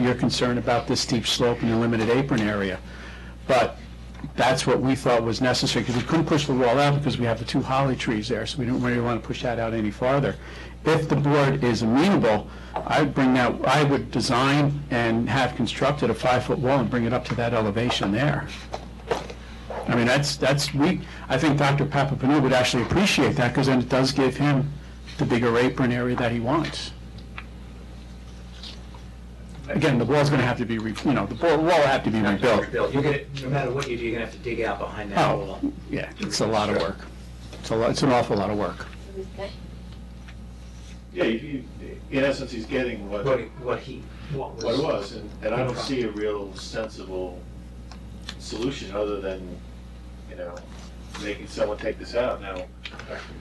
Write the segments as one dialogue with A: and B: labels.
A: your concern about this steep slope and the limited apron area. But that's what we thought was necessary, because we couldn't push the wall out because we have the two holly trees there, so we don't really want to push that out any farther. If the board is amenable, I'd bring that, I would design and have constructed a five-foot wall and bring it up to that elevation there. I mean, that's, that's, we, I think Dr. Papapenou would actually appreciate that, because then it does give him the bigger apron area that he wants. Again, the wall's gonna have to be, re- you know, the wall wall will have to be rebuilt.
B: Bill, you're gonna, no matter what you do, you're gonna have to dig out behind that
A: Oh,
B: wall.
A: yeah, it's a lot of work. It's a lot, it's an awful lot of work.
C: Yeah, you- you- in essence, he's getting what,
B: What,
C: what it
B: what he, what was.
C: was, and and I don't see a real sensible solution other than, you know, making someone take this out now.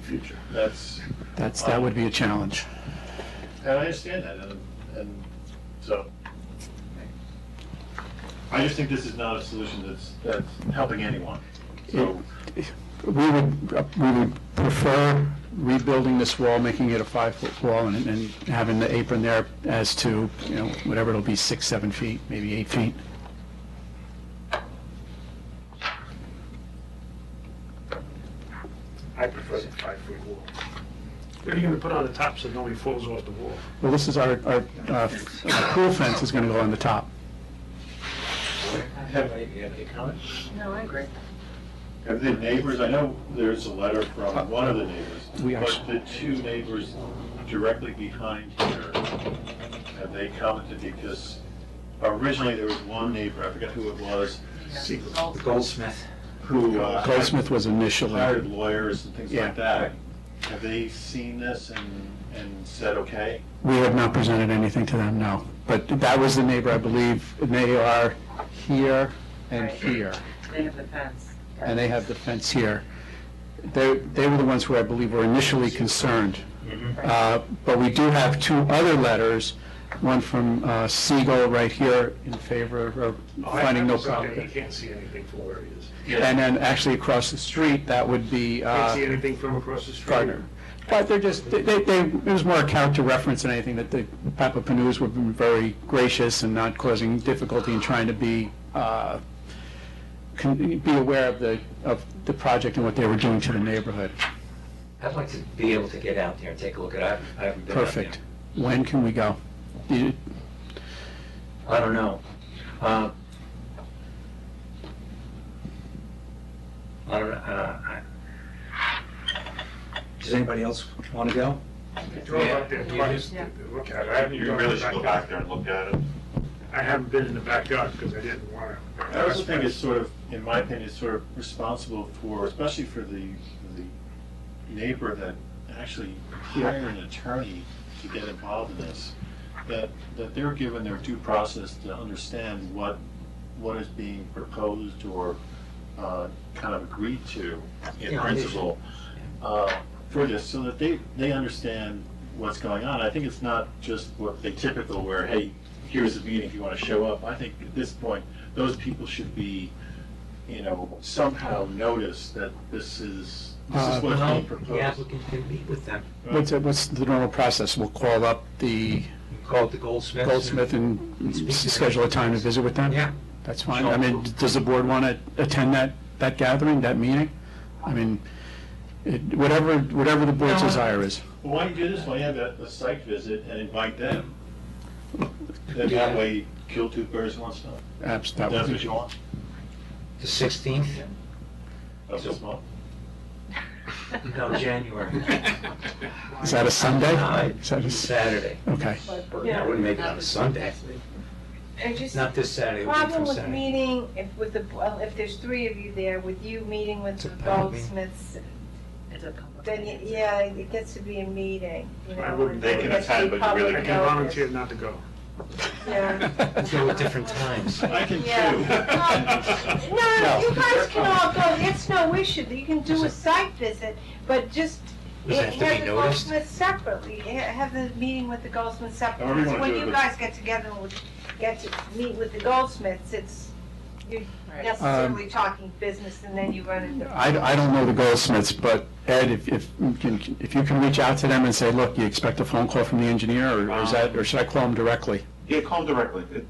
C: Future. That's,
A: That's, that would be a challenge.
C: and I understand that, and, and so. I just think this is not a solution that's, that's helping anyone, so.
A: We would, we would prefer rebuilding this wall, making it a five-foot wall, and, and having the apron there as to, you know, whatever it'll be, six, seven feet, maybe eight feet.
D: I prefer the five-foot wall.
E: What are you gonna put on the top so nobody falls off the wall?
A: Well, this is our, our, uh, pool fence is gonna go on the top.
B: Have any any comments?
F: No, I agree.
C: Have the neighbors, I know there's a letter from one of the neighbors,
A: Uh, We are-
C: but the two neighbors directly behind here, have they commented because originally there was one neighbor, I forget who it was,
B: Goldsmith.
C: who uh,
A: Goldsmith was
C: hired
A: initially,
C: lawyers and things
A: Yeah.
C: like that. Have they seen this and, and said, okay?
A: we have not presented anything to them, no. But that was the neighbor, I believe, and they are here and
F: Right.
A: here.
F: They have the fence.
A: and they have the fence here. They, they were the ones who I believe were initially concerned.
E: Mm-hmm.
A: Uh, But we do have two other letters, one from uh, Siegel right here in favor of
E: Oh,
A: finding no
E: He
A: problem.
E: can't see anything from where he is.
A: And then actually across the street, that would be
E: Can't see
A: uh,
E: anything from across the street.
A: Gardner. But they're just, they, they, they- it was more a character reference than anything, that the Papapenus were very gracious and not causing difficulty in trying to be, uh, con- be aware of the, of the project and what they were doing to the neighborhood.
B: I'd like to be able to get out there and take a look at it. I haven't- I haven't been out there.
A: Perfect. When can we go? You-
B: I don't know. Uh, I don't, know, uh, I- does anybody else want to go?
E: I drove up there twice to look at it. I haven't gone in the backyard.
C: there and look at it.
E: I haven't been in the backyard because I didn't wanna.
C: I also think it's sort of, in my opinion, it's sort of responsible for, especially for the, the neighbor that actually hired an attorney to get involved in this, that, that they're given their due process to understand what, what is being proposed or, uh, kind of agreed to in
B: Yeah.
C: principle, uh, for this, so that they, they understand what's going on. I think it's not just what they typical where, hey, here's the meeting if you want to show up. I think at this point, those people should be, you know, somehow notice that this is, this
A: Uh,
C: is what's
B: Well,
C: being
B: The
C: proposed.
B: applicant can meet with them.
A: What's, what's the normal process? We'll call up the
B: You Call it the Goldsmith.
A: Goldsmith and schedule a time to visit with them?
B: Yeah.
A: That's fine. I mean, does the board want to attend that, that gathering, that meeting? I mean, it- whatever, whatever the board's
B: No.
A: desire is.
C: Well, why don't you do this, why don't you have a, a site visit and invite them? Then that way, kill two birds with one stone.
A: Abs- that
C: That's
A: would
C: what
A: be-
C: you want,
B: The sixteenth?
C: of this month?
B: No, January.
A: Is that a Sunday?
B: No,
A: Is that a s-
B: Saturday.
A: Okay.
B: Yeah, I wouldn't make it on a Sunday.
F: I just,
B: Not this Saturday, it would be
F: problem
B: from
F: with
B: Saturday.
F: meeting, if with the, well, if there's three of you there, with you meeting with
B: It's a
F: the
B: public meeting.
F: goldsmiths, then, y- yeah, it gets to be a meeting, you know.
E: I wouldn't-
F: and
E: they
F: it
E: can
F: gets to
C: attend,
F: be
C: but you really
E: I
F: public
E: can volunteer
F: notice.
E: not to go.
F: Yeah.
B: Go at different times.
C: I can
F: Yeah.
C: too.
F: No, you guys can all go, it's no issue, you can do a site visit, but just
B: Does it have to be
F: the
B: noticed?
F: Goldsmith separately, Ha- have the meeting with the Goldsmiths
C: However
F: separately.
C: you
F: Because
C: wanna
F: When
C: do it,
F: you
C: but-
F: guys get together and would get to meet with the Goldsmiths, it's, you're necessarily talking business and then you run into.
A: I, I don't know the Goldsmiths, but Ed, if, if, you can- if you can reach out to them and say, look, you expect a phone call from the engineer, or is that, or should I call them directly?
G: Yeah, call directly. It-